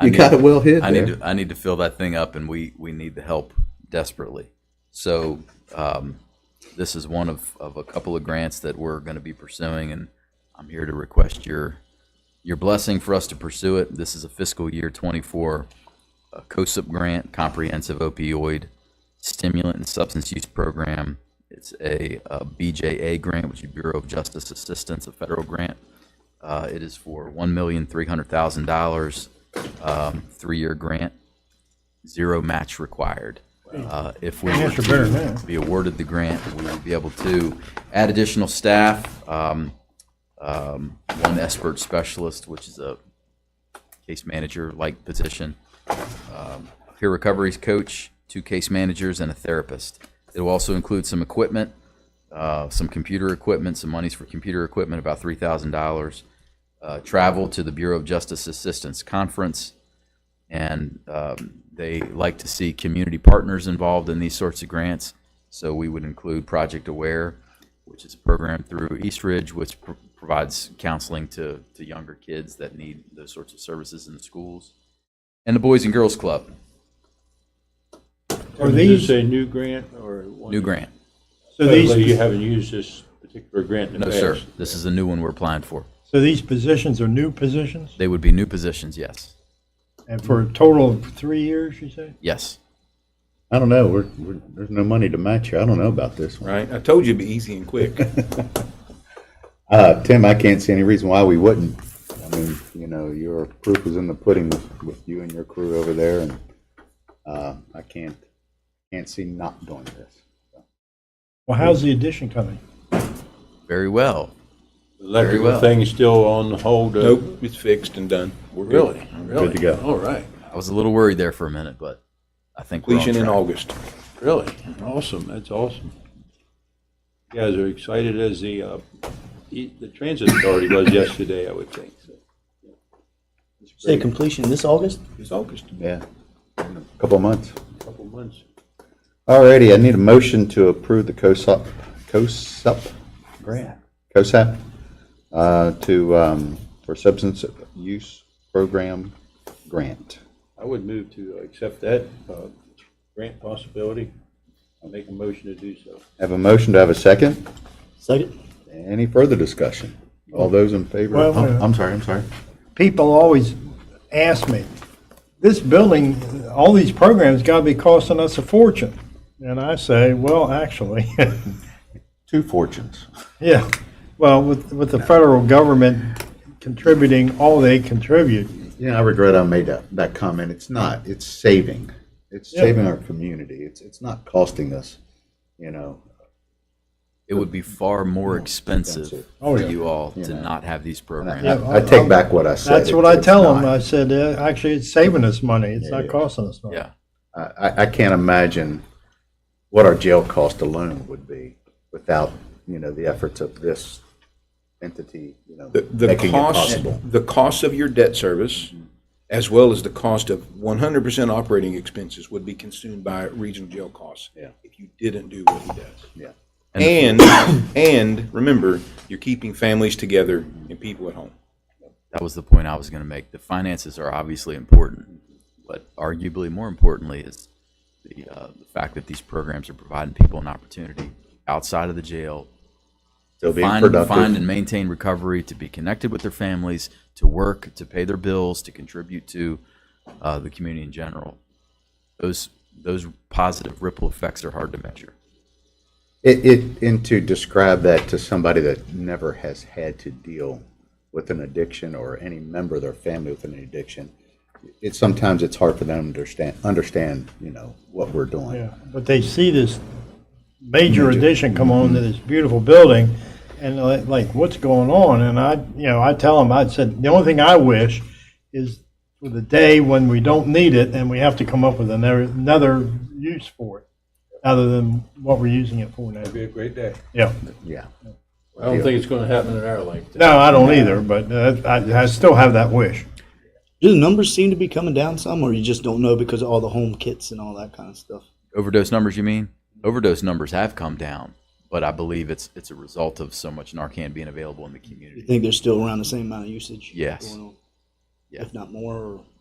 You got it well hit I need there. to I need to fill that thing up, and we we need the help desperately. So um, this is one of of a couple of grants that we're going to be pursuing, and I'm here to request your your blessing for us to pursue it. This is a fiscal year 24 a COSUP grant, comprehensive opioid stimulant and substance use program. It's a, uh BJA grant, which is Bureau of Justice Assistance, a federal grant. Uh, it is for one million three hundred thousand dollars, um, three-year grant, zero match required. Uh, if we were That's better than to that. be awarded the grant, we would be able to add additional staff, um, um, one expert specialist, which is a case manager-like position, um, peer recovery coach, two case managers, and a therapist. It will also include some equipment, uh, some computer equipment, some monies for computer equipment, about three thousand dollars. Uh, travel to the Bureau of Justice Assistance Conference, and um, they like to see community partners involved in these sorts of grants. So we would include Project Aware, which is a program through East Ridge, which pr- provides counseling to to younger kids that need those sorts of services in the schools, and the Boys and Girls Club, Are Is these, this a new grant or? one- new grant. so So these, you haven't used this particular grant in No, the past? sir. This is a new one we're applying for. so these positions are new positions? They would be new positions, yes. And for a total of three years, you say? Yes. I don't know. We're, we're, there's no money to match here. I don't know about this one. Right? I told you it'd be easy and quick. Uh, Tim, I can't see any reason why we wouldn't. I mean, you know, your proof is in the pudding with, with you and your crew over there, and uh, I can't can't see not doing this. Well, how's the addition coming? Very well. The well. Electrical thing is still on hold? uh, Nope, it's fixed and done. We're good. Really? Good to Really? go. All right. I was a little worried there for a minute, but I think we're on Completion in track. August. Really? Awesome. That's awesome. You guys are excited as the, uh, e- the transit authority was yesterday, I would think. so. Say completion this August? It's August, Yeah, in a couple of months. a couple months. Alrighty, I need a motion to approve the COSUP, COSUP grant, COSAP, uh, to, um, for substance use program grant. I would move to accept that uh, grant possibility. I'll make a motion to do so. Have a motion to have a second? Second? Any further discussion? All those in favor? Well, Oh, uh, I'm sorry, I'm sorry. People always ask me, this building, all these programs gotta be costing us a fortune. And I say, well, actually, Two fortunes. yeah, well, with, with the federal government contributing all they contribute, Yeah, I regret I made that, that comment. It's not, it's saving. It's Yeah. saving our community. It's, it's not costing us, you know. It would be far more expensive expensive. Oh, for yeah. you all to Yeah. not have these programs. I I take back what I said. that's what I It's tell them. not. I said, uh, actually, it's saving us money, it's not Yeah. costing us money. Yeah. I- I, I can't imagine what our jail cost alone would be without, you know, the efforts of this entity, you know, The, the making it cost, possible. the cost of your debt service, as well as the cost of one hundred percent operating expenses would be consumed by regional jail costs. Yeah. If you didn't do what he does. Yeah. And, and remember, you're keeping families together and people at home. That was the point I was going to make. The finances are obviously important, but arguably more importantly is the, uh, the fact that these programs are providing people an opportunity outside of the jail So being find, find productive. and maintain recovery, to be connected with their families, to work, to pay their bills, to contribute to uh, the community in general. Those those positive ripple effects are hard to measure. It, it, and to describe that to somebody that never has had to deal with an addiction or any member of their family with an addiction, it's, sometimes it's hard for them to understand, understand, you know, what we're doing. Yeah, but they see this major addition come on to this beautiful building, and they're like, what's going on? And I, you know, I tell them, I said, the only thing I wish is for the day when we don't need it and we have to come up with another, another use for it, other than what we're using it for now. It'd be a great day. Yeah, Yeah. I don't think it's going to happen in our lifetime. no, I don't either, but uh, I, I still have that wish. Do the numbers seem to be coming down some, or you just don't know because of all the home kits and all that kind of stuff? Overdose numbers, you mean? Overdose numbers have come down, but I believe it's it's a result of so much Narcan being available in the You community. think there's still around the same amount of usage? Yes. going on? Yeah. if not more, or